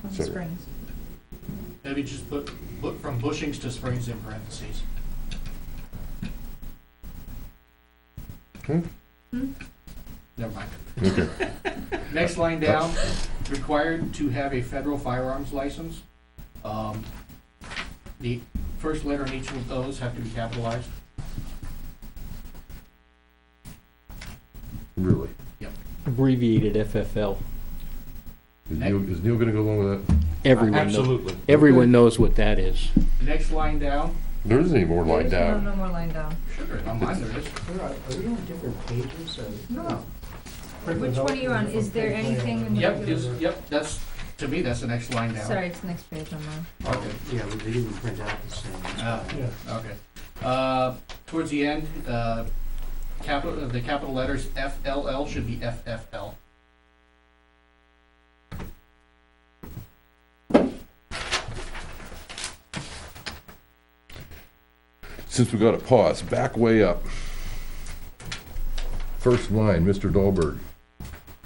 from Sure. Springs. Maybe just put, put from bushings to springs in parentheses. Hmm? Hmm? Never mind. Okay. Next line down, required to have a federal firearms license. Um, The first letter in each of those have to be capitalized. Really? abbreviated FFL. Is Neil, is Neil gonna go along with that? Everyone knows. Absolutely. Everyone knows what that is. Next line down, There isn't any more line There's No, down. no more line down. sugar, on mine there is. Where Are are we on different pages? No. Which one are you on? Is there anything in the Yep, regular? is- yep, that's, to me, that's the next line down. Sorry, it's the next page on mine. Okay. Yeah, well, they didn't print out the same. Ah, Okay. Uh, Towards the end, uh, capital, uh, the capital letters FLL should be FFL. Since we got a pause, back way up. First line, Mr. Dahlberg.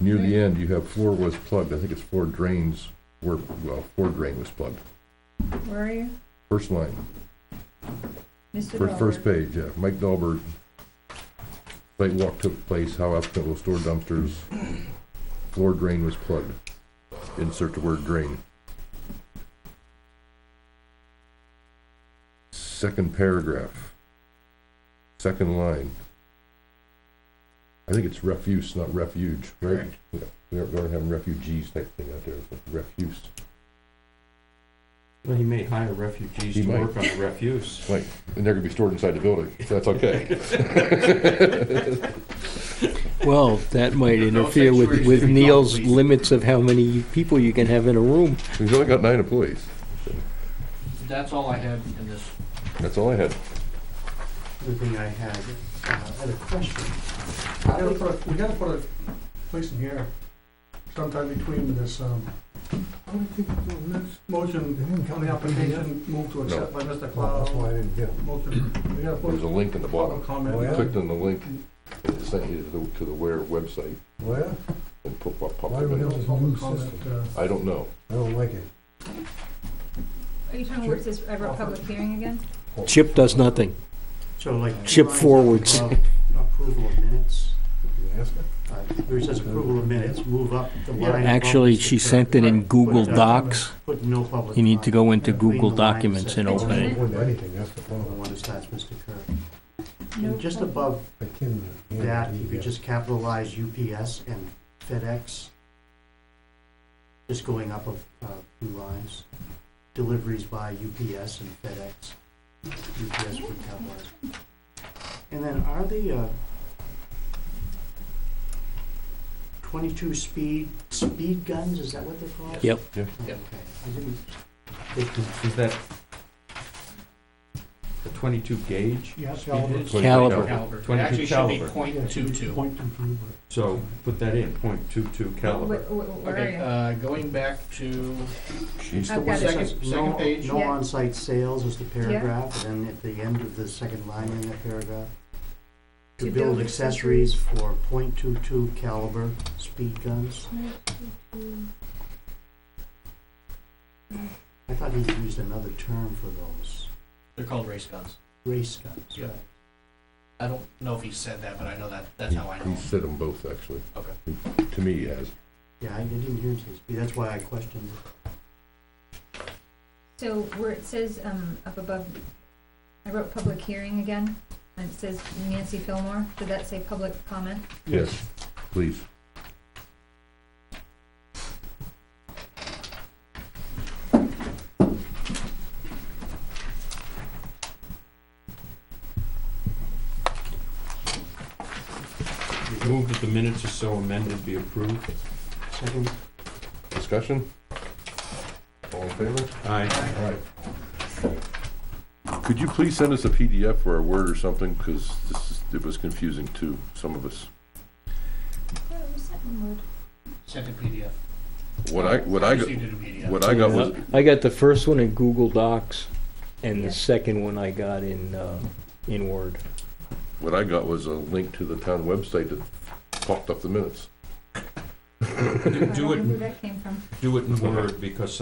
Near the end, you have floor was plugged. I think it's floor drains were, well, floor drain was plugged. Where are you? First line, Mr. first, first Dahlberg. page, yeah. Mike Dahlberg. Site walk took place, how applicant will store dumpsters. Floor drain was plugged. Insert the word drain. Second paragraph. Second line. I think it's refuse, not refuge, right? Correct. Yeah, We aren't, we aren't having refugees type thing out there, but refuse. Well, he may hire refugees He to might. work on the refuse. Right, and they're gonna be stored inside the building, so that's okay. Well, that might No interfere with, sanctuaries with to be Neil's built, please. limits of how many people you can have in a room. We've only got nine employees. That's all I had in this. That's all I had. The thing I had, uh, I had a question. How We gotta do we- put a- we gotta put a place in here sometime between this, um, I don't think, the next motion on the application, move to accept by Mr. Well, That's why I Cloud. didn't get it. Motion, we gotta There's a put link in the public bottom. Oh, yeah? comment. Clicked on the link, and it sent you to the, to the Ware website Well, and put what popped Why up do we in have it. to- Public comment, uh, I don't know. I don't like it. Are you talking about this ever public hearing again? Chip does nothing. So like. Chip forwards. Approval of minutes, Can I ask her? uh, where it says approval of minutes, move up the line. Actually, above she Mr. sent it in Put, Google uh, Docs. Put no public. You need to go into comment. Clean Google the line Documents and says- open it. Well, anything, that's the The one that starts Mr. Kirk. No And Just public- above I can. that, if you just capitalize UPS and FedEx, just going up of, uh, two lines, deliveries by UPS and FedEx, UPS would capitalize. And then are the, uh, twenty-two speed, speed guns, is that what they're called? Yep. Yeah. Okay, Yep. I didn't, they can, Is that a twenty-two gauge? yeah, Speed is? Caliber. Caliber. It 22 actually should be caliber. point two two. Point and prove it. So put that in, point two-two caliber. Wh- wh- Where Okay, are uh, going back to, Jeez. I've got it. Second- It says second no- page. No Yeah. on-site sales is the paragraph, and then at the end of the second line in that paragraph. To build accessories for .22 caliber speed guns. you? I thought he used another term for those, they're called race guns. race guns, Yeah. right? I don't know if he said that, but I know that, that's how I He know. said them both, actually. Okay. To me, he has. Yeah, I I didn't hear him say speed, that's why I questioned it. So where it says, um, up above, I wrote public hearing again, and it says Nancy Fillmore, did that say public comment? Yes, please. Move that the minutes are so amended be approved. Second, Discussion? All in favor? Aye. All right. Could you please send us a PDF or a Word or something, because this is, it was confusing to some of us. Yeah, it was sent in Word. Sent a PDF. What I, what I, got- Received it in PDF. what I got was, I got the first one in Google Docs and Yeah. the second one I got in, uh, in Word. what I got was a link to the town website that popped up the minutes. I don't Do know it, who that came from. do it in Word, because